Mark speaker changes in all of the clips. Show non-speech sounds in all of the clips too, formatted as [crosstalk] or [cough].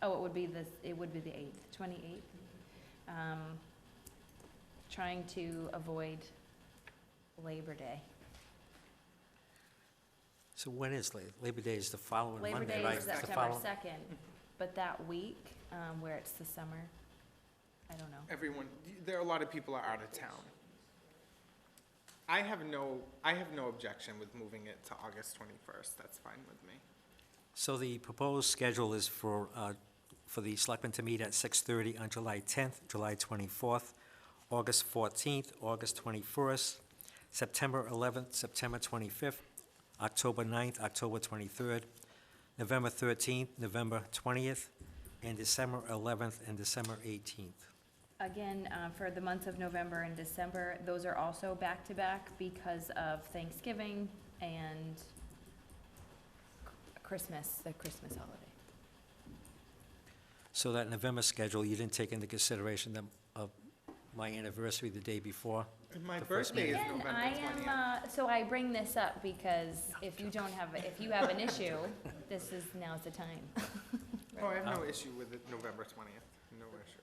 Speaker 1: Oh, it would be this, it would be the eighth, twenty-eighth. Um, Trying to avoid Labor Day.
Speaker 2: So when is Labor, Labor Day is the following
Speaker 1: Labor
Speaker 2: Monday, right?
Speaker 1: Day is
Speaker 2: It's the
Speaker 1: September
Speaker 2: follow-
Speaker 1: second, but that week, um, where it's the summer, I don't know.
Speaker 3: everyone, there are a lot of people are out of town. I have no, I have no objection with moving it to August 21st, that's fine with me.
Speaker 2: So the proposed schedule is for, uh, for the selectmen to meet at six-thirty on July tenth, July twenty-fourth, August fourteenth, August twenty-first, September eleventh, September twenty-fifth, October 9th, October twenty-third, November thirteenth, November twentieth, and December eleventh and December eighteenth.
Speaker 1: Again, uh, for the months of November and December, those are also back-to-back because of Thanksgiving and Christmas, the Christmas holiday.
Speaker 2: So that November schedule, you didn't take into consideration the, of my anniversary the day before?
Speaker 3: And My
Speaker 2: The first
Speaker 3: birthday is
Speaker 1: Again,
Speaker 3: November
Speaker 1: I am,
Speaker 3: 20th.
Speaker 1: uh, so I bring this up because if you don't have, if you have an [laughs] issue, this is, now's the time.
Speaker 3: Oh, I have no issue with it, November 20th, no issue.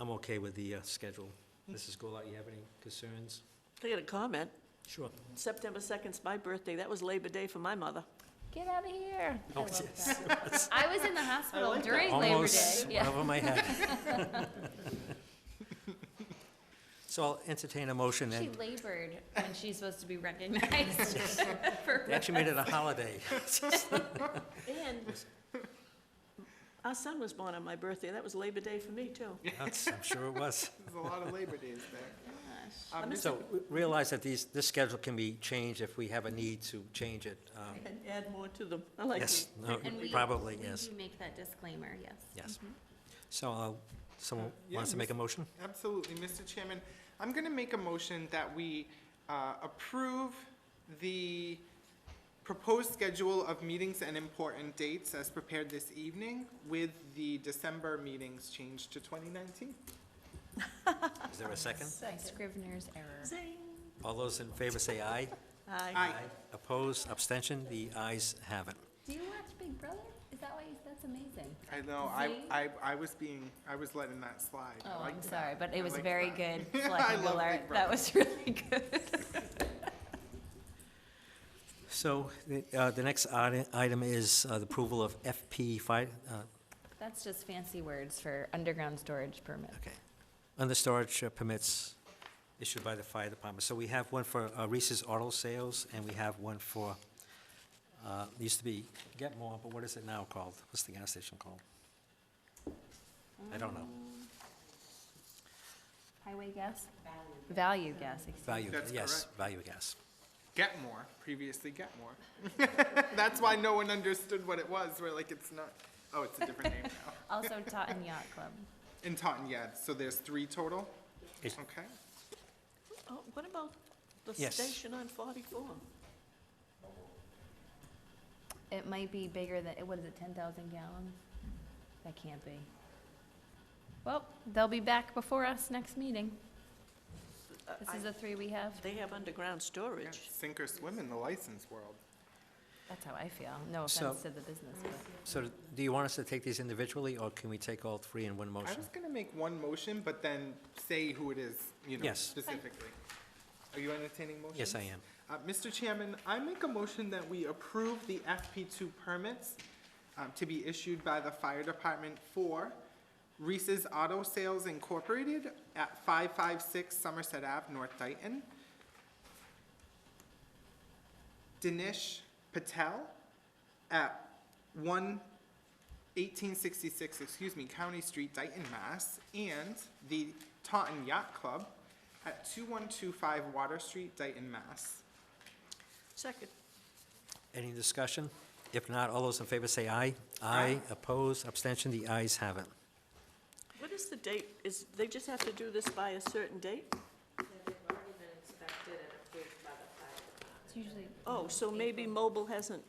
Speaker 2: I'm okay with the uh, schedule. Mrs. Goulart, you have any concerns?
Speaker 4: I got a comment.
Speaker 2: Sure.
Speaker 4: September 2nd's my birthday. That was Labor Day for my mother.
Speaker 1: Get out of here. I
Speaker 2: Oh,
Speaker 1: love
Speaker 2: yes.
Speaker 1: that. [laughs] I was in the hospital during Labor Day.
Speaker 2: Almost went
Speaker 1: Yeah.
Speaker 2: over my head. [laughs] So I'll entertain a motion
Speaker 1: She
Speaker 2: and,
Speaker 1: labored when she's supposed to be recognized [laughs] for
Speaker 2: they actually made it a holiday.
Speaker 4: And our son was born on my birthday. That was Labor Day for me, too.
Speaker 2: That's- I'm sure it was.
Speaker 3: There's a lot of Labor Days [laughs] there. Um,
Speaker 4: I'm
Speaker 2: So we realize that these, this schedule can be changed if we have a need to change it. Um,
Speaker 4: And add more to them. I like
Speaker 2: Yes,
Speaker 4: it.
Speaker 2: no,
Speaker 1: And we-
Speaker 2: probably,
Speaker 1: we
Speaker 2: yes,
Speaker 1: do Make that disclaimer, yes.
Speaker 2: yes. So uh, someone
Speaker 3: Uh, yeah,
Speaker 2: wants to make a motion?
Speaker 3: Absolutely, Mr. Chairman, I'm going to make a motion that we uh, approve the proposed schedule of meetings and important dates as prepared this evening with the December meetings changed to 2019.
Speaker 2: Is there a second?
Speaker 1: Scrivener's error.
Speaker 4: Zing.
Speaker 2: All those in favor say aye.
Speaker 4: Aye.
Speaker 3: Aye.
Speaker 2: Opposed, abstention, the ayes have it.
Speaker 1: Do you watch Big Brother? Is that why, you- that's amazing.
Speaker 3: I know, I,
Speaker 1: See?
Speaker 3: I, I was being, I was letting that slide. I
Speaker 1: Oh, I'm
Speaker 3: liked
Speaker 1: sorry,
Speaker 3: that.
Speaker 1: but
Speaker 3: I
Speaker 1: it was
Speaker 3: liked
Speaker 1: very good.
Speaker 3: that. [laughs] I
Speaker 1: Selectman
Speaker 3: love
Speaker 1: Goulart.
Speaker 3: Big
Speaker 1: That
Speaker 3: Brother.
Speaker 1: was really good.
Speaker 2: So the uh, the next ite- item is uh, the approval of FP, fi- uh,
Speaker 1: That's just fancy words for underground storage permit.
Speaker 2: okay, under storage uh, permits issued by the fire department. So we have one for uh, Reese's Auto Sales, and we have one for, uh, it used to be Get More, but what is it now called? What's the gas station called? I don't know.
Speaker 1: Highway gas? Value gas, excuse me.
Speaker 2: Value,
Speaker 3: That's
Speaker 2: yes, Value Gas.
Speaker 3: Get more, previously get more. [laughs] That's why no one understood what it was, we're like, it's not, oh, it's a different name now.
Speaker 1: Also Taunton Yacht Club.
Speaker 3: In Taunton, yeah, so there's three total,
Speaker 2: It's-
Speaker 3: okay?
Speaker 4: Oh, What about the
Speaker 2: Yes.
Speaker 4: station on Uh, 44?
Speaker 1: It might be bigger than, what is it, ten thousand gallons? That can't be. Well, they'll be back before us next meeting.
Speaker 4: Uh,
Speaker 1: This
Speaker 4: I-
Speaker 1: is the three we have.
Speaker 4: They have underground
Speaker 3: Yeah,
Speaker 4: storage.
Speaker 3: Sink or swim in the license world.
Speaker 1: That's how I feel. No
Speaker 2: So-
Speaker 1: offense to the business, but
Speaker 2: So do you want us to take these individually, or can we take all three in one
Speaker 3: I
Speaker 2: motion?
Speaker 3: was gonna make one motion, but then say who it is, you know,
Speaker 2: Yes.
Speaker 3: specifically. Are you entertaining motions?
Speaker 2: Yes, I am.
Speaker 3: Uh, Mr. Chairman, I make a motion that we approve the FP2 permits um, to be issued by the fire department for Reese's Auto Sales Incorporated at 556 Somerset Ave, North Dayton. Dinesh Patel at 1 1866, excuse me, County Street, Dayton, Mass. And the Taunton Yacht Club at 2125 Water Street, Dayton, Mass.
Speaker 4: Second.
Speaker 2: Any discussion? If not, all those in favor say aye. Aye, opposed, abstention, the ayes have it.
Speaker 4: What is the date? Is, they just have to do this by a certain date?
Speaker 1: it's usually.
Speaker 4: Oh, so maybe mobile hasn't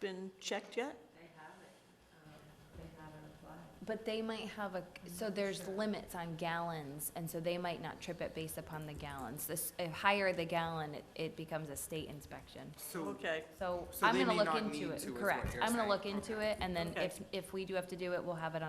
Speaker 4: been checked yet?
Speaker 1: But they might have a, so there's limits on gallons, and so they might not trip it based upon the gallons. This, if higher the gallon, it, it becomes a state inspection.
Speaker 3: So,
Speaker 4: Okay.
Speaker 1: So
Speaker 3: So
Speaker 1: I'm
Speaker 3: they
Speaker 1: gonna
Speaker 3: may
Speaker 1: look
Speaker 3: not
Speaker 1: into
Speaker 3: need to, is
Speaker 1: it,
Speaker 3: what
Speaker 1: correct.
Speaker 3: you're
Speaker 1: I'm gonna
Speaker 3: saying.
Speaker 1: look into it, and then
Speaker 4: Okay.
Speaker 1: if, if we do have to do it, we'll have it on